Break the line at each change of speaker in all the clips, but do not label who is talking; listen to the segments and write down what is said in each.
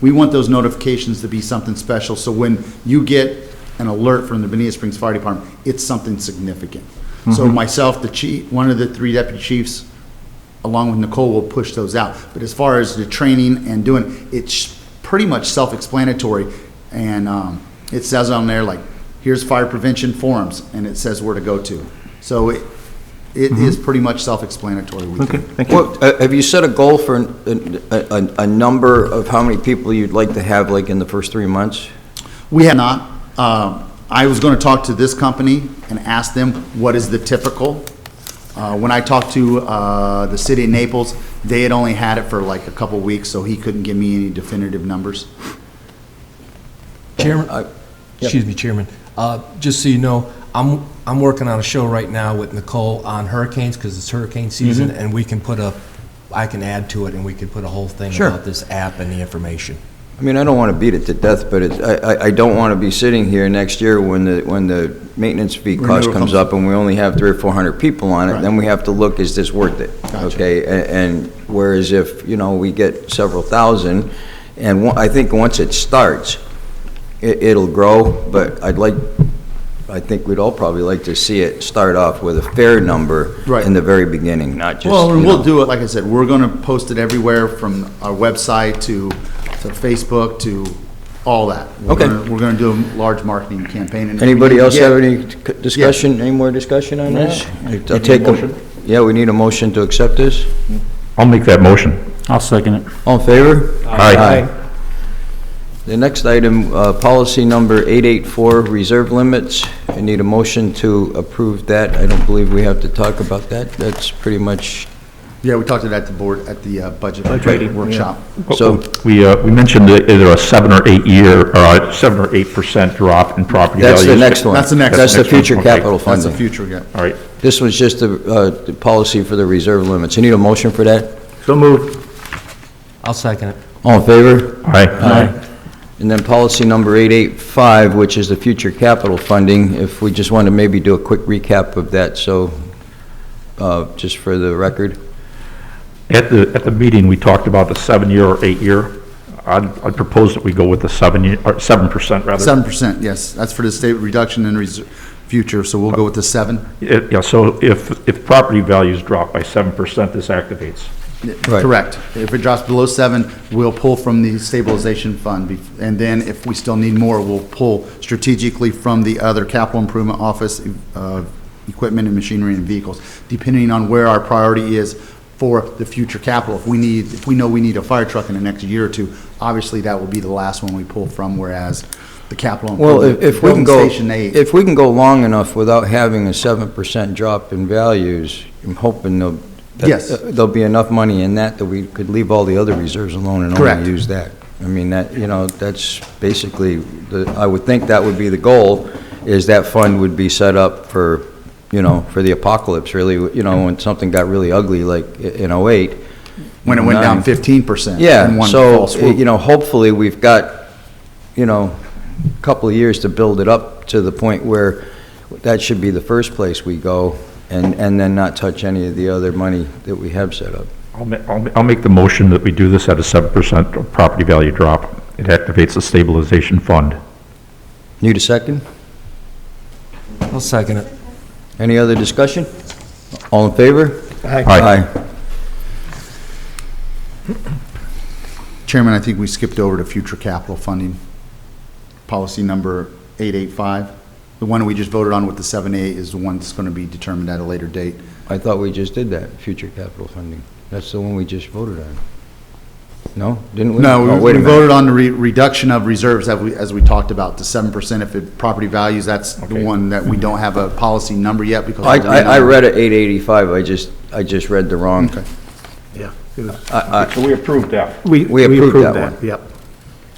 we want those notifications to be something special, so when you get an alert from the Benita Springs Fire Department, it's something significant. So myself, the chief, one of the three deputy chiefs, along with Nicole, will push those out. But as far as the training and doing, it's pretty much self-explanatory. And um, it says on there, like, here's fire prevention forums, and it says where to go to. So it, it is pretty much self-explanatory. we
Okay,
think.
thank you.
What, uh, have you set a goal for an- an- a, a, a number of how many people you'd like to have, like, in the first three months?
We have not. Um, I was going to talk to this company and ask them, what is the typical? Uh, When I talked to uh, the city of Naples, they had only had it for like a couple weeks, so he couldn't give me any definitive numbers.
Chairman, uh, excuse me, Chairman, Uh, just so you know, I'm, I'm working on a show right now with Nicole on hurricanes, because it's hurricane season, and we can put a, I can add to it, and we can put a whole thing
Sure.
about this app and the information.
I mean, I don't want to beat it to death, but it, I, I- I don't want to be sitting here next year when the, when the maintenance fee cost
Renewal
comes
comes-
up and we only have three or four hundred people on it,
Right.
then we have to look, is this worth it?
Gotcha.
Okay, a- and whereas if, you know, we get several thousand, and one- I think once it starts, it, it'll grow, but I'd like, I think we'd all probably like to see it start off with a fair number
Right.
in the very beginning, not just,
Well,
you
and we'll
know.
do it, like I said, we're going to post it everywhere from our website to, to Facebook to all that. We're
Okay.
gonna- We're going to do a large marketing campaign. and-
Anybody else have
Yeah.
any c- discussion, any more discussion on this? I'll
need
take
a
a-
motion?
Yeah, we need a motion to accept this.
I'll make that motion.
I'll second it.
All in favor?
Aye.
The next item, uh, policy number 884, reserve limits. I need a motion to approve that. I don't believe we have to talk about that. That's pretty much,
Yeah, we talked to that at the board, at the uh, budget workshop.
so,
We, uh, we mentioned that either a seven or eight year, or a seven or eight percent drop in property
that's
values.
the next one.
That's the next
That's
one.
the future
Okay.
capital
That's the
funding.
future, yeah.
All right,
This was just the, uh, the policy for the reserve limits. I need a motion for that.
so moved.
I'll second it.
All in favor?
Aye.
And then policy number 885, which is the future capital funding, if we just want to maybe do a quick recap of that, so, uh, just for the record.
At the, at the meeting, we talked about the seven-year or eight-year. I'd, I'd propose that we go with the seven, year or seven percent rather.
Seven percent, yes. That's for the state reduction in reser- future, so we'll go with the seven.
It- Yeah, so if, if property values drop by seven percent, this activates.
Right.
Correct. If it drops below seven, we'll pull from the stabilization fund. bef- And then if we still need more, we'll pull strategically from the other capital improvement office, uh, equipment and machinery and vehicles, depending on where our priority is for the future capital. If we need, if we know we need a fire truck in the next year or two, obviously that will be the last one we pull from, whereas the capital.
Well, if
improvement-
if we can go,
Building Station Eight.
if we can go long enough without having a 7% drop in values, I'm hoping there'll, that- uh,
Yes.
there'll be enough money in that that we could leave all the other reserves alone and
Correct.
only use that. I mean, that, you know, that's basically, the I would think that would be the goal, is that fund would be set up for, you know, for the apocalypse, really, you know, when something got really ugly, like i- in '08.
When it went down
Nine.
fifteen percent.
Yeah, so, eh, you know, hopefully, we've got, you know, a couple of years to build it up to the point where that should be the first place we go, and, and then not touch any of the other money that we have set up.
I'll, ma- I'll, ma- I'll make the motion that we do this at a seven percent property value drop. It activates the stabilization fund.
Need a second?
I'll second it.
Any other discussion? All in favor?
Aye.
Chairman, I think we skipped over to future capital funding, policy number 885. The one we just voted on with the 7A is the one that's going to be determined at a later date.
I thought we just did that, future capital funding. That's the one we just voted on. No? Didn't we?
No,
Oh,
we-
wait a
we
minute.
voted on the re- reduction of reserves that we, as we talked about, to 7% if it property values. That's the
Okay.
one that we don't have a policy number yet because.
I, I I read it 885, I just, I just read the wrong.
Okay.
So we approved that.
We approved that one.
Yep.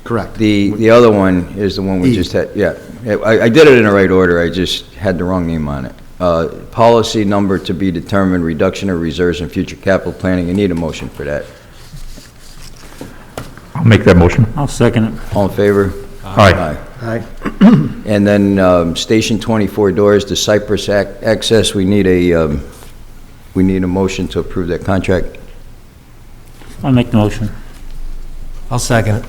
Correct.
The, the other one is the one we
E.
just had, yeah. I, I did it in the right order, I just had the wrong name on it. Uh, Policy number to be determined, reduction of reserves and future capital planning. I need a motion for that.
I'll make that motion.
I'll second it.
All in favor?
Aye.
Aye.
And then um, Station 24 doors, the Cypress Ac- access, we need a, um, we need a motion to approve that contract.
I'll make the motion.
I'll second it.